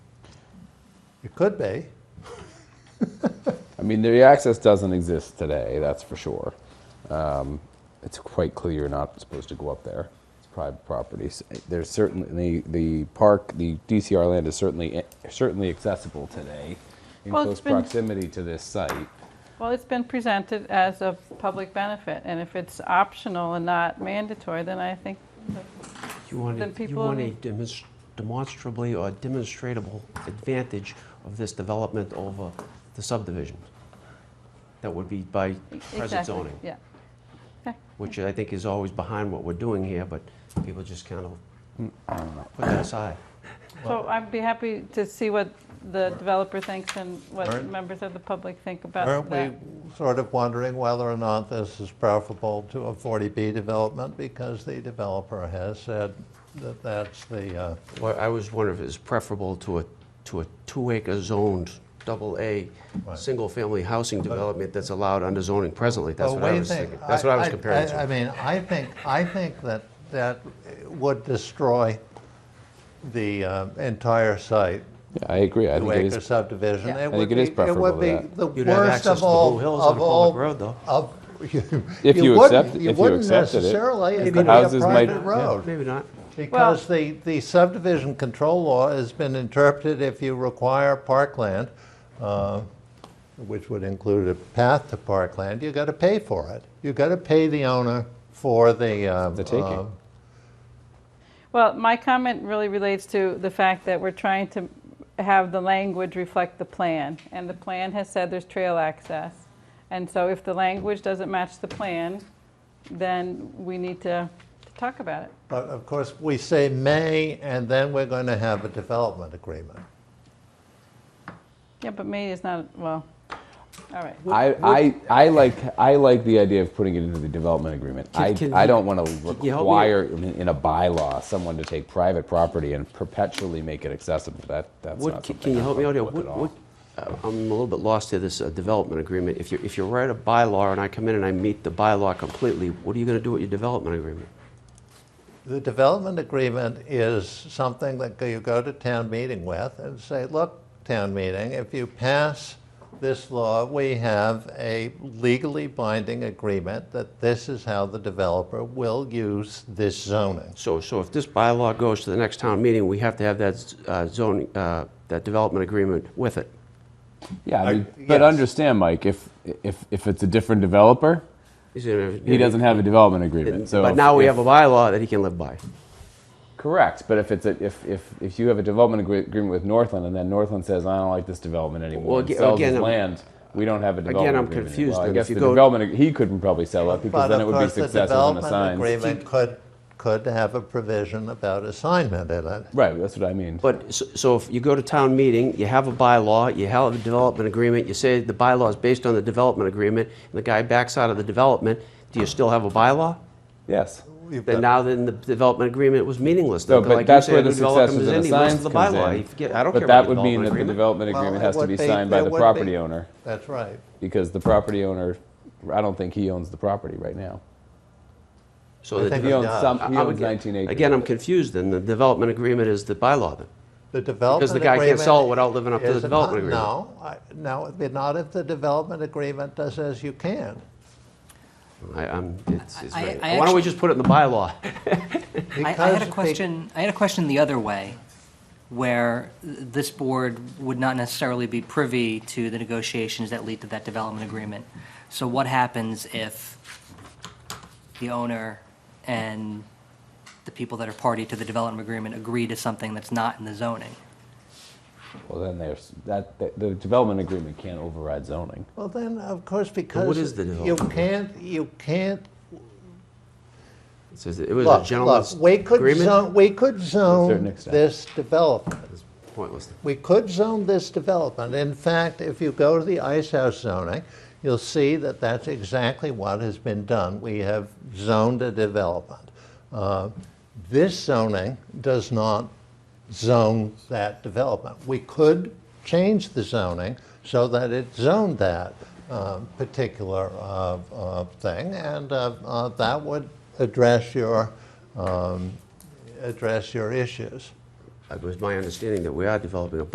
It could be. I mean, the access doesn't exist today, that's for sure. Um, it's quite clear you're not supposed to go up there. It's private property. S- There's certainly, the park, the DCR land is certainly, eh, certainly accessible today in Well, close it's been- proximity to this site. Well, it's been presented as a public benefit, and if it's optional and not mandatory, then I think, You want, Then a- you people- want a demonst- demonstrably or demonstratable advantage of this development over the subdivision. That would be by present exactly, zoning, yeah. which I think is always behind what we're doing here, but people just kind of put that aside. So I'd be happy to see what the developer thinks and what Alright. members of the public think Uh, about Aren't that. we sort of wondering whether or not this is preferable to a 40B development? Because the developer has said that that's the, uh, Well, I was wondering if it's preferable to a, to a two-acre zoned, double-A, Right. single-family housing development that's allowed under zoning presently. That's Well, what I wait a was minute. thinking. That's what I was comparing I to. mean, I think, I think that that would destroy the uh, entire site, Yeah, I agree. I two think it acre is subdivision. Yeah. I would think it is be- preferable to It that. would be the You'd have worst access to of the all, Blue Hills on of a public all. road, though. Of, you If you wouldn't- accept- if you wouldn't accepted it, necessarily, the it'd be a houses might- private Yeah. road. Maybe not. Because the, the subdivision control law has been interpreted if you require parkland, uh, which would include a path to parkland, you gotta pay for it. You gotta pay the owner for the, um. the taking. um, Well, my comment really relates to the fact that we're trying to have the language reflect the plan, and the plan has said there's trail access. And so if the language doesn't match the plan, then we need to to talk about it. But of course, we say may, and then we're gonna have a development agreement. Yeah, but May is not, well, all right. I, I, I like I like the idea of putting it into the development agreement. Can- I, can I you- don't want to you help me? require in, in a bylaw someone to take private property and perpetually make it accessible. That that's What, not can something can you I'm help me out here? comfortable with What- at all. what- uh, I'm a little bit lost here, this uh, development agreement. If you, if you write a bylaw and I come in and I meet the bylaw completely, what are you going to do with your development agreement? The development agreement is something that you go to town meeting with and say, look, town meeting, if you pass this law, we have a legally binding agreement that this is how the developer will use this zoning. So, so if this bylaw goes to the next town meeting, we have to have that z- uh, zoning, uh, that development agreement with it. Yeah, I I- mean, but yes. understand, Mike, if if if it's a different developer, He's gonna- he doesn't have a development agreement. So But if- now we if- have a bylaw that he can live by. correct. But if it's a, if if if you have a development agree- agreement with Northland, and then Northland says, I don't like this development anymore, Well, and aga- sells his again, I'm- land. We don't have a development I'm agreement. confused Well, I then. guess If you the go- development ag- he couldn't probably sell it because But of then it would be course, the successive and development assigned. agreement could, could have a provision about assignment in it. Right, that's what I mean. But, s- so if you go to town meeting, you have a bylaw, you have a development agreement, you say the bylaw is based on the development agreement, and the guy backs out of the development, do you still have a bylaw? yes. You've Then got- now then the development agreement was meaningless. No, Then, but like you that's say, where a the new development successes and is any less assigns than the comes bylaw. in. You forget- I don't care But about that the would mean development that the agreement. development Well, agreement it has to would be signed by there the would be- property owner That's right. because the property owner, I don't think he owns the property right now. So I the think He Yeah. owns some. He I'm owns again- 19 acres. Again, I'm confused, then. The development agreement is the bylaw, then. The development the guy can't sell it agreement without living up to the is a- development agreement. No, I- no, it'd be not if the development agreement does as you can. I, I'm, it's, it's I- very- I Why don't we actu- just put it in the bylaw? I, I had Because a they- question. I had a question the other way, where th- this board would not necessarily be privy to the negotiations that lead to that development agreement. So what happens if the owner and the people that are party to the development agreement agree to something that's not in the zoning? Well, then there's that. The, the development agreement can't override zoning. Well, then, of course, because. is the You development can't, you can't, It says that It was a look, look, gentleman's we could agreement. zone, we could certain zone extent. this development. It's Pointless. We could zone this development. In fact, if you go to the ice house zoning, you'll see that that's exactly what has been done. We have zoned a development. Uh, This zoning does not zone that development. We could change the zoning so that it zoned that um, particular uh, uh, thing, and uh, uh, that would address your, um, address your issues. It was my understanding that we are developing a